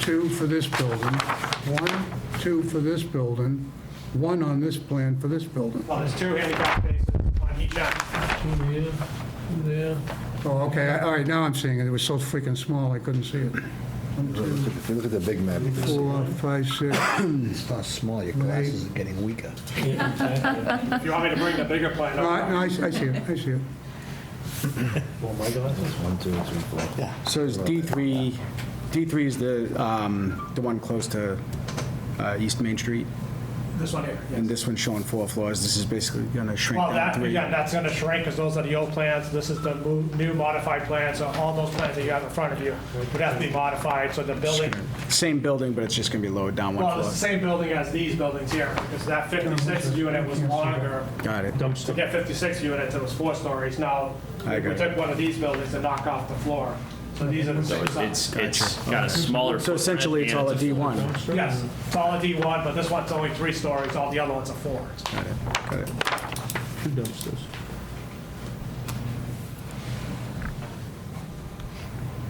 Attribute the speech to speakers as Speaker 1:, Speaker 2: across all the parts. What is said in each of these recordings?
Speaker 1: two for this building, one, two for this building, one on this plan for this building.
Speaker 2: Well, there's two handicap spaces, one each end.
Speaker 3: Two here, two there.
Speaker 1: Oh, okay, all right, now I'm seeing it, it was so freaking small, I couldn't see it. One, two,
Speaker 4: If you look at the big map, you can see
Speaker 1: four, five, six,
Speaker 4: it's not small, your glasses are getting weaker.
Speaker 2: If you want me to bring the bigger plan
Speaker 1: no, I
Speaker 2: up,
Speaker 1: no, I see I see it, I see it.
Speaker 3: Oh, my glasses.
Speaker 4: One, two, three, four. Yeah.
Speaker 5: So is D3, D3 is the, um, the one close to uh, East Main Street,
Speaker 2: this one here.
Speaker 5: and this one's showing four floors. This is basically going to shrink
Speaker 2: Well,
Speaker 5: down
Speaker 2: that,
Speaker 5: three.
Speaker 2: yeah, that's gonna shrink, because those are the old plans, this is the mo- new modified plan, so all those plans that you have in front of you would have to be modified, so the building,
Speaker 5: Same building, but it's just going to be lowered down one
Speaker 2: well, it's the
Speaker 5: floor.
Speaker 2: same building as these buildings here, because that 56 unit was longer.
Speaker 5: Got it.
Speaker 2: To get 56 units, it was four stories, now
Speaker 5: I
Speaker 2: we
Speaker 5: got it.
Speaker 2: took one of these buildings and knocked off the floor, so these are the
Speaker 6: So
Speaker 2: same
Speaker 6: it's-
Speaker 2: size.
Speaker 6: it's, it's got a smaller
Speaker 5: So
Speaker 6: footprint
Speaker 5: essentially, it's
Speaker 6: and
Speaker 5: all a
Speaker 6: a full-
Speaker 5: D1.
Speaker 2: Yes, it's all a D1, but this one's only three stories, all the other ones are four.
Speaker 5: Got it, got it.
Speaker 3: Two dumpsters.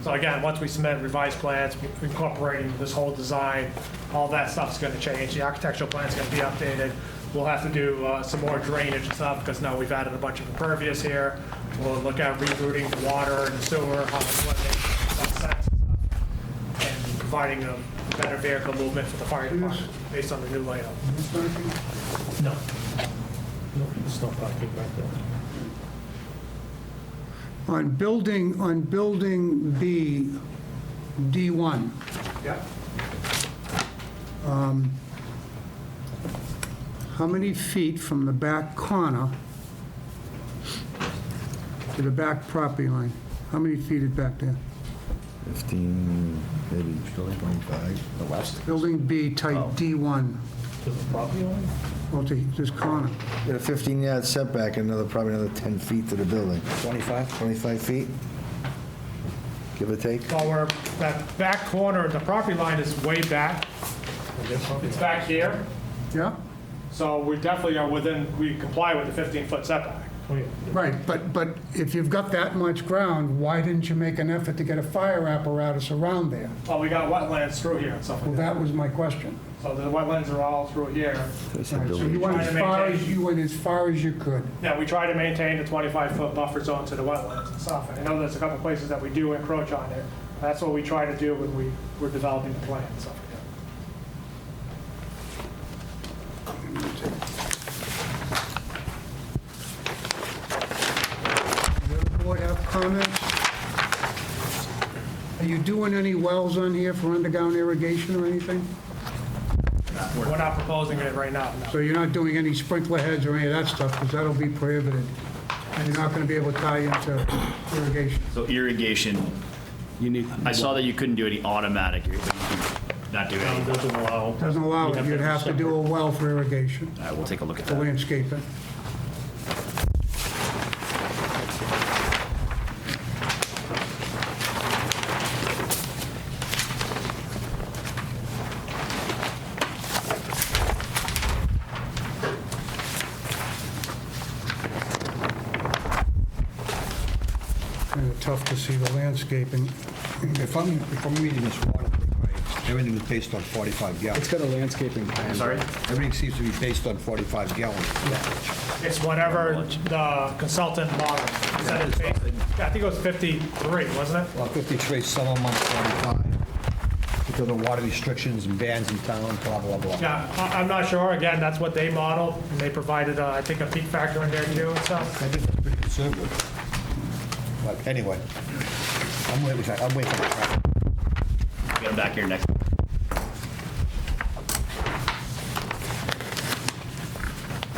Speaker 2: So again, once we submit revised plans incorporating this whole design, all that stuff's going to change. The architectural plan's going to be updated. We'll have to do uh, some more drainage and stuff because now we've added a bunch of impervious here. We'll look at rerouting the water and the sewer, how much what makes what sense and stuff, and providing a better vehicle movement for the fire department based on the new layout.
Speaker 3: No. No, it's not parking back there.
Speaker 1: On building, on building B, D1,
Speaker 2: Yep.
Speaker 1: how many feet from the back corner to the back property line? How many feet is back there?
Speaker 4: 15, maybe 25. The west?
Speaker 1: Building B, type D1,
Speaker 3: Oh. To the property line?
Speaker 1: well, to this corner.
Speaker 4: Get a 15-yard setback, another, probably another 10 feet to the building. 25? 25 feet, give or take.
Speaker 2: Well, we're, that back corner, the property line is way back. It's back here.
Speaker 1: Yeah?
Speaker 2: So we definitely are within, we comply with the 15-foot setback.
Speaker 3: Oh, yeah.
Speaker 1: Right, but, but if you've got that much ground, why didn't you make an effort to get a fire apparatus around there?
Speaker 2: Well, we got wetlands through here and stuff
Speaker 1: Well,
Speaker 2: like that.
Speaker 1: that was my question.
Speaker 2: So the wetlands are all through here.
Speaker 4: That's a
Speaker 1: Right, So
Speaker 4: building.
Speaker 1: you went as far as, you went as far as you could.
Speaker 2: Yeah, we try to maintain the 25-foot buffer zone to the wetlands and stuff. And I know there's a couple places that we do encroach on it. That's what we try to do when we, we're developing the plan and stuff like that.
Speaker 1: Does the board have comments? Are you doing any wells on here for underground irrigation or anything?
Speaker 2: We're not proposing it right now, no.
Speaker 1: So you're not doing any sprinkler heads or any of that stuff, because that'll be prohibited. And you're not gonna be able to tie into irrigation.
Speaker 6: So irrigation,
Speaker 5: You need,
Speaker 6: I saw that you couldn't do any automatic, but you can not do
Speaker 3: Town
Speaker 6: any.
Speaker 3: doesn't allow.
Speaker 1: Doesn't allow it,
Speaker 3: You'd
Speaker 1: you'd have to do a well for irrigation,
Speaker 6: All right, Uh, we'll take a look at
Speaker 1: for
Speaker 6: that.
Speaker 1: landscaping. Kinda tough to see the landscaping.
Speaker 7: If I'm, if I'm reading this waterway right, everything is based on 45
Speaker 5: it's
Speaker 7: gallons.
Speaker 5: got a landscaping plan.
Speaker 6: Sorry?
Speaker 7: Everything seems to be based on 45 gallons.
Speaker 2: It's whatever the consultant model. said it's based- I think it was 53, wasn't it?
Speaker 7: Well, 53, some of them are 45. Because of water restrictions and bans in town, blah, blah, blah.
Speaker 2: Yeah, I- I'm not sure. Again, that's what they modeled, and they provided, uh, I think, a peak factor in there too Uh, and stuff.
Speaker 7: I think that's pretty conservative. But anyway, I'm waiting, for- I'm waiting for the traffic.
Speaker 6: Get them back here next.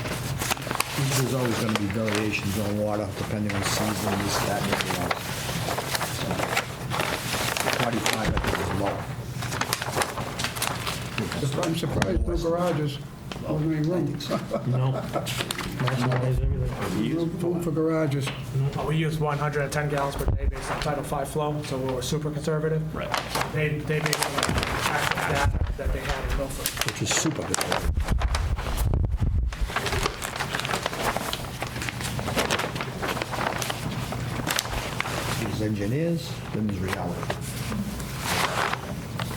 Speaker 7: There's always going to be variations on water depending on season, this, that, and the other. So, 45, I think, is low.
Speaker 1: I'm surprised no garages, only room,
Speaker 3: No. Maximize everything.
Speaker 1: room for garages.
Speaker 2: Uh, We use 110 gallons per day based on Title V flow, so we were super conservative.
Speaker 6: Right.
Speaker 2: They, they based it on actual data that they had in Milford.
Speaker 7: which is super good. There's engineers, then there's reality.